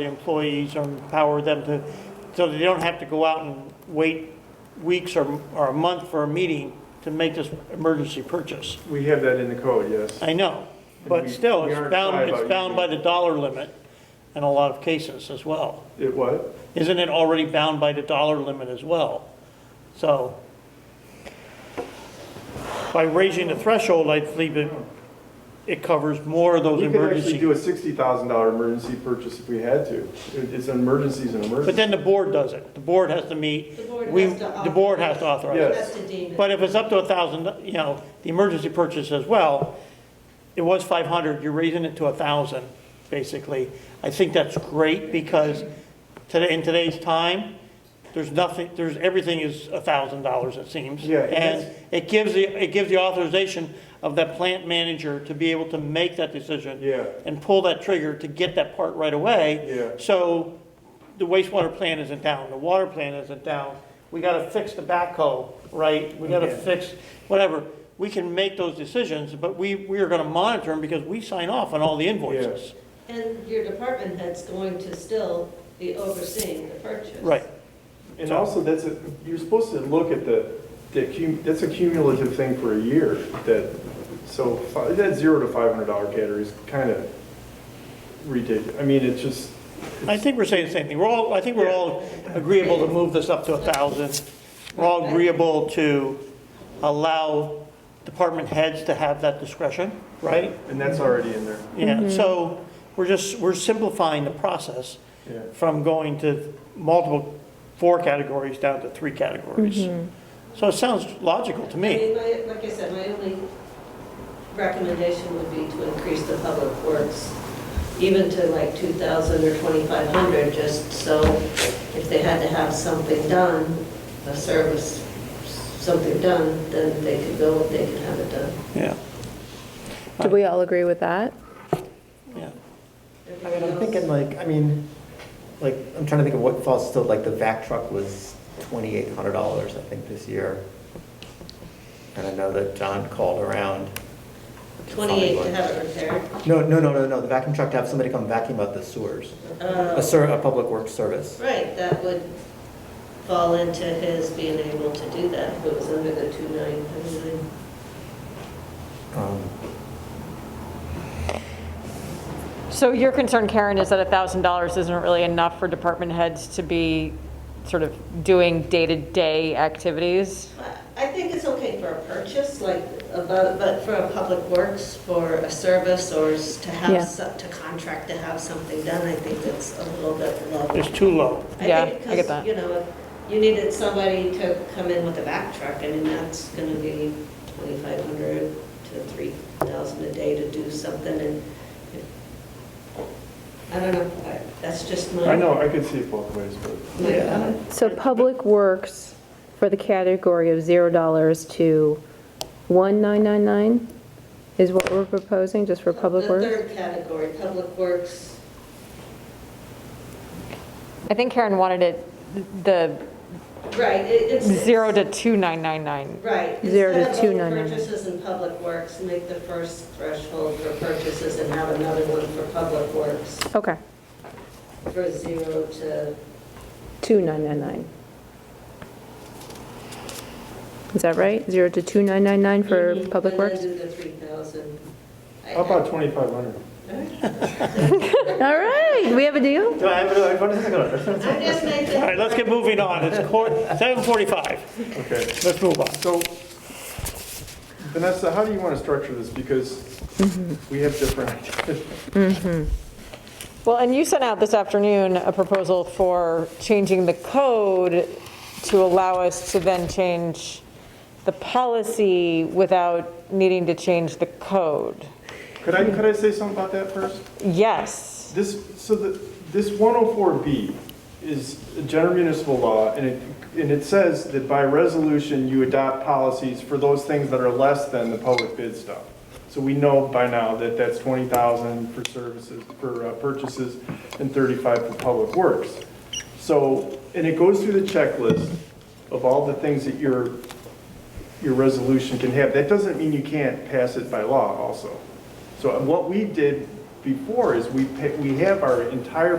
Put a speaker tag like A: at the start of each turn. A: the employees or empower them to, so they don't have to go out and wait weeks or, or a month for a meeting to make this emergency purchase.
B: We have that in the code, yes.
A: I know,
B: And
A: but
B: we-
A: still,
B: we
A: it's
B: aren't shy
A: bound,
B: about
A: it's bound
B: using-
A: by the dollar limit in a lot of cases as well.
B: It what?
A: Isn't it already bound by the dollar limit as well? So by raising the threshold, I believe it, it covers more of those
B: We could actually do
A: emergency.
B: a sixty thousand dollar emergency purchase if we had to. It- It's an emergency, is an
A: But
B: emergency.
A: then the board does it. The board has to meet.
C: The board
A: We-
C: has to
A: The board has to authorize it.
B: Yes.
C: That's to deem it.
A: But if it's up to a thousand, you know, the emergency purchase as well, it was five hundred, you're raising it to a thousand, basically. I think that's great because today, in today's time, there's nothing, there's, everything is a thousand dollars, it seems.
B: Yeah, and
A: And
B: that's-
A: it gives the, it gives the authorization of that plant manager to be able to make that decision
B: Yeah,
A: and pull that trigger to get that part right away.
B: Yeah.
A: So the wastewater plant isn't down, the water plant isn't down. We gotta fix the backhoe, right? We gotta
B: Yeah.
A: fix, whatever. We can make those decisions, but we, we are gonna monitor them because we sign off on all the invoices.
C: And your department head's going to still be overseeing the purchase.
A: Right,
B: and also that's a, you're supposed to look at the, the cum, that's a cumulative thing for a year that, so fi- that zero to five hundred dollar category is kind of ridiculous. I mean, it's just,
A: I think we're saying the same thing. We're all, I think we're all agreeable to move this up to a thousand. We're all agreeable to allow department heads to have that discretion, right?
B: and that's already in there.
A: Yeah, so we're just, we're simplifying the process
B: Yeah.
A: from going to multiple, four categories down to three categories. So it sounds logical to
C: I
A: me.
C: mean, my- like I said, my only recommendation would be to increase the public works even to like 2,000 or 2,500, just so if they had to have something done, a service, something done, then they could go, they could have it done.
A: Yeah,
D: Do we all agree with that?
A: yeah.
E: I mean, I'm thinking like, I mean, like, I'm trying to think of what falls still, like the vac truck was twenty-eight hundred dollars, I think, this year. And I know that John called around. to find
C: 28 to
E: one.
C: have it repaired.
E: No, no, no, no, no, the vacuum truck to have somebody come vacuum out the sewers, a
C: Uh,
E: ser, a public works service.
C: Right, that would fall into his being able to do that, if it was under the 2999.
E: Um,
F: So your concern, Karen, is that $1,000 isn't really enough for department heads to be sort of doing day-to-day activities?
C: I think it's okay for a purchase, like, about- but for a public works, for a service, or s- to
D: Yeah.
C: have, so- to contract to have something done, I think that's a little bit low.
A: It's too low.
C: think
F: Yeah, I get
C: Because,
F: that.
C: you know, if you needed somebody to come in with a back truck, I mean, that's gonna be 2,500 to 3,000 a day to do something, and I don't know, I- that's just my.
B: I know, I could see it both ways, but
C: my
E: Yeah.
C: thought.
D: So Public Works for the category of $0 to 1999 is what we're proposing, just for Public
C: The
D: Works?
C: third category, public works,
F: I think Karen wanted it, the
C: right, it- it's.
F: 0 to 2999.
C: Right.
D: Zero to
C: Instead of all
D: 299.
C: purchases in public works, make the first threshold for purchases and have another one for public works,
D: Okay,
C: for zero to,
D: 2999. Is that right? 0 to 2999 for Public Works?
C: Mm-hmm. And then do the 3,000. I-
B: how about twenty-five hundred?
D: All right, we have a deal?
E: No, I, no, I want to think about it.
C: I'm just making.
A: All right, let's get moving on. It's quarter, 7:45.
B: Okay.
A: Let's move on.
B: So, Vanessa, how do you want to structure this? Because we have different ideas.
F: Well, and you sent out this afternoon a proposal for changing the code to allow us to then change the policy without needing to change the code.
B: Could I, could I say something about that first?
F: Yes.
B: This, so the, this 104B is a general municipal law, and it, and it says that by resolution, you adopt policies for those things that are less than the public bid stuff. So we know by now that that's 20,000 for services, for uh, purchases, and 35 for public works. So, and it goes through the checklist of all the things that your, your resolution can have. That doesn't mean you can't pass it by law also. So what we did before is we, pa- we have our entire